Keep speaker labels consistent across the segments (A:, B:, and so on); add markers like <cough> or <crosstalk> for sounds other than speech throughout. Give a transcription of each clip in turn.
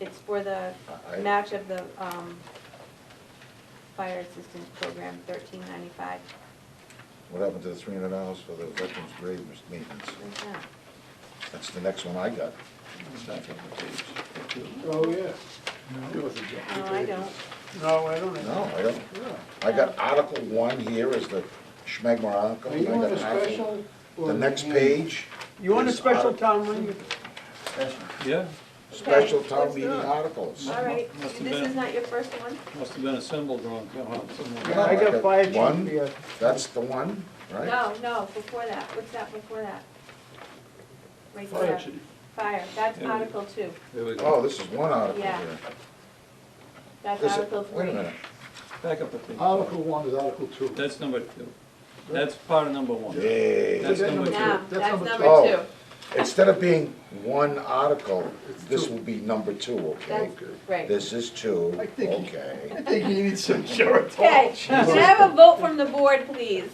A: It's for the
B: Uh, I-
A: match of the um, fire assistance program, thirteen ninety-five.
B: What happened to the three hundred dollars for the veterans' grave maintenance?
A: Where's that?
B: That's the next one I got. It's not on the page.
C: Oh, yeah.
A: No, I don't.
C: No, I don't.
B: No, I don't,
C: Yeah.
B: I got Article one here is the Schmegmar article.
C: Are you
B: I
C: on
B: got
C: a
B: Article-
C: special? or
B: The next
C: hand?
B: page,
C: You on a
B: is
C: special
B: Article-
C: town meeting?
D: Yeah,
B: special
A: Okay,
B: town
A: let's
B: meeting
A: do it.
B: articles.
A: All right,
D: Must have
A: this
D: been.
A: is not your first one?
D: must have been assembled wrong, come on, somewhere.
C: Yeah, I got fire chief
B: One,
C: here.
B: That's the one, right?
A: No, no, before that, what's that before that? Right there. Fire, that's
D: Yeah.
A: Article two,
D: There we
B: Oh,
D: go,
B: this is one article
A: Yeah.
B: here.
A: that's
B: This-
A: Article three.
B: Wait a minute,
D: back up a thing.
E: Article one is Article two.
D: That's number two. That's part of number one. That's
B: yay.
D: number
A: Now,
D: two.
E: That's
A: that's
E: number
A: number
B: two.
A: two.
B: Oh. Instead of being one article, this
E: two.
B: will be number two, okay?
A: That's, right.
B: This is two,
E: I think-
B: okay.
E: I think he needs some <laughs> short.
B: Oh,
A: Okay, can I have a vote from the board, please?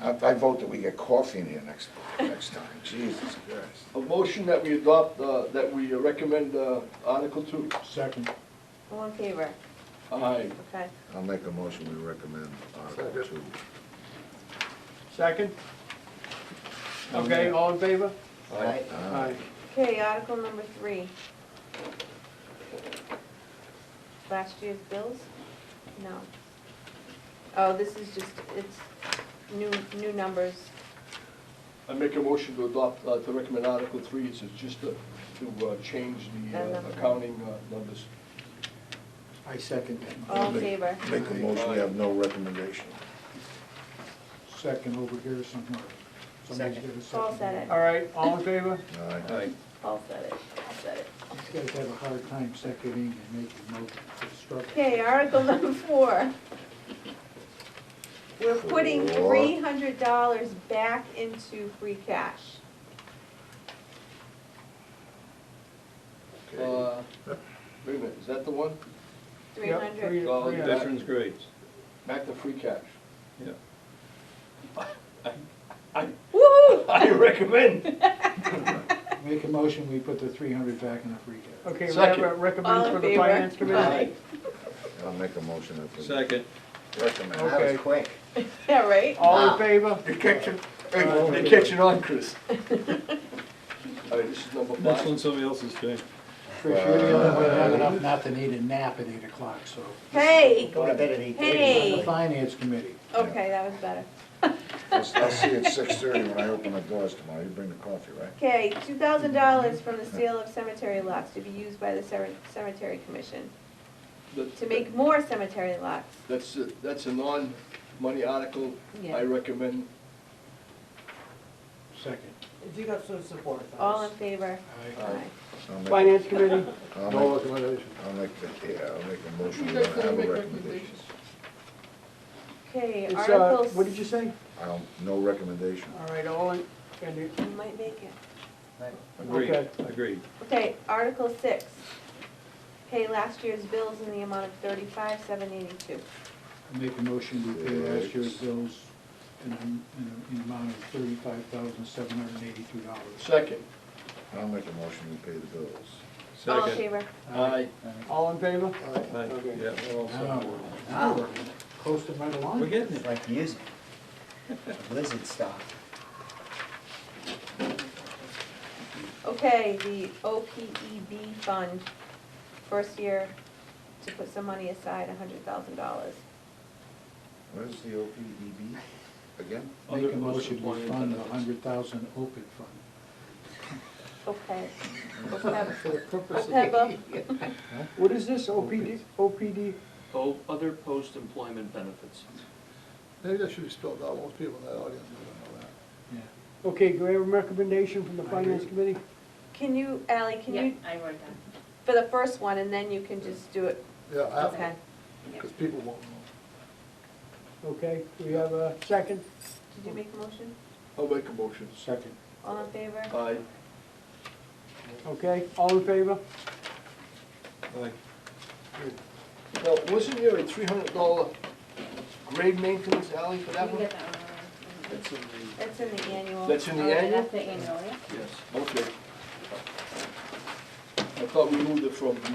B: I, I vote that we get coffee in here next, next time, Jesus Christ.
E: A motion that we adopt, uh, that we recommend uh, Article two.
C: Second.
A: All in favor?
E: Aye.
A: Okay.
B: I'll make a motion, we recommend Article two.
C: Second? Okay, all in favor?
E: Aye.
B: Aye.
A: Okay, Article number three. Last year's bills? No. Oh, this is just, it's new, new numbers.
E: I make a motion to adopt, uh, to recommend Article three, it's just to, to uh, change the uh, accounting uh, numbers.
C: I second
A: All in favor?
B: Make a motion, we have no recommendation.
C: Second over here somewhere. Somebody's got a
A: Paul said
C: All
A: it.
C: right, all in favor?
B: Aye.
D: Right,
A: Paul said it. Paul said it.
C: These guys have a hard time seconding and making motion to struggle.
A: Okay, Article <laughs> number four. We're putting
B: Four.
A: three hundred dollars back into free cash.
B: Okay.
E: Uh, Wait a minute, is that the one?
A: Three hundred.
E: Oh,
C: Yeah.
E: that's-
D: Veterans grades,
E: Back to free cash.
D: yeah.
A: Woo-hoo!
E: I recommend.
C: Make a motion, we put the three hundred back in the free cash.
F: Okay, we have a
E: Second.
F: recommend
A: All
F: for
A: in
F: the finance
A: favor?
F: committee.
A: Aye.
B: I'll make a motion if we.
D: Second,
B: Recommend.
C: That was
B: quick.
A: <laughs> Yeah, right?
F: All in favor?
E: <laughs> You're catching, you're catching on, Chris.
A: <laughs>
E: All right, this is number
D: that's
E: five.
D: one somebody else's doing.
C: Chris, you're the only one that have enough not to need a nap at eight o'clock, so.
A: Hey,
G: Go to bed at eight thirty.
C: On the
A: hey.
C: finance committee.
A: Okay, that was better.
B: I'll I'll see you at six thirty when I open the doors tomorrow. You bring the coffee, right?
A: Okay, two thousand dollars from the sale of cemetery lots to be used by the cemetery, cemetery commission
E: That-
A: to make more cemetery lots.
E: That's, a- that's a non-money article.
A: Yeah.
E: I recommend
C: Second.
F: If you got some support,
A: All in favor?
E: Aye.
B: I'll make-
F: Finance committee,
A: <laughs>
B: I'll
E: No
B: make,
E: recommendation.
B: I'll make, the- yeah, I'll make a motion.
E: You
B: We
E: guys
B: don't
E: gonna
B: have
E: make
B: a recommendation.
E: recommendations?
A: Okay,
F: it's, uh,
A: Article.
F: what did you say?
B: I don't, no recommendation.
F: All right, all in, and you,
A: You might make it.
D: Agreed,
F: Okay.
D: agreed.
A: Okay, Article six. Pay last year's bills in the amount of thirty-five, seven eighty-two.
C: Make a motion to pay last year's bills in an, in an amount of thirty-five thousand, seven hundred and eighty-two dollars.
E: Second.
B: I'll make a motion. We pay the bills.
A: All in
D: Second,
A: favor?
E: Aye.
F: all in favor?
D: Aye. yeah, we're all set.
C: Now, now we're coasting right along.
D: We're getting
G: It's
D: it.
G: like music. Blizzard style.
A: Okay, the OPEB fund, first year to put some money aside, hundred thousand dollars.
B: Where's the OPEB again?
C: Make a motion to fund the hundred thousand open fund.
A: Okay. OPEB.
F: For the purpose of,
A: OPEB.
F: what is this, OPD, OPD?
H: Oh, other post-employment benefits.
G: Maybe that should be spelled out, most people in that audience don't know that.
C: Yeah.
F: Okay, do I have a recommendation from the
C: I
F: finance
C: agree.
F: committee?
A: Can you, Ally, can you,
I: I wrote it down.
A: for the first one, and then you can just do it,
E: Uh,
G: Yeah,
A: okay?
G: because people won't know.
F: Okay, we have a second,
A: Did you make a motion?
E: I'll make a motion.
C: Second.
A: All in favor?
E: Aye.
F: okay, all in favor?
D: Aye.
E: Now, wasn't there a three hundred dollar grade maintenance alley for that
I: You
E: one?
I: get that one.
E: That's in
A: That's in the annual.
E: That's in
I: Oh,
E: the
I: yeah,
E: annual?
I: That's the annual, yeah.
E: Yes, okay. I thought we moved it from the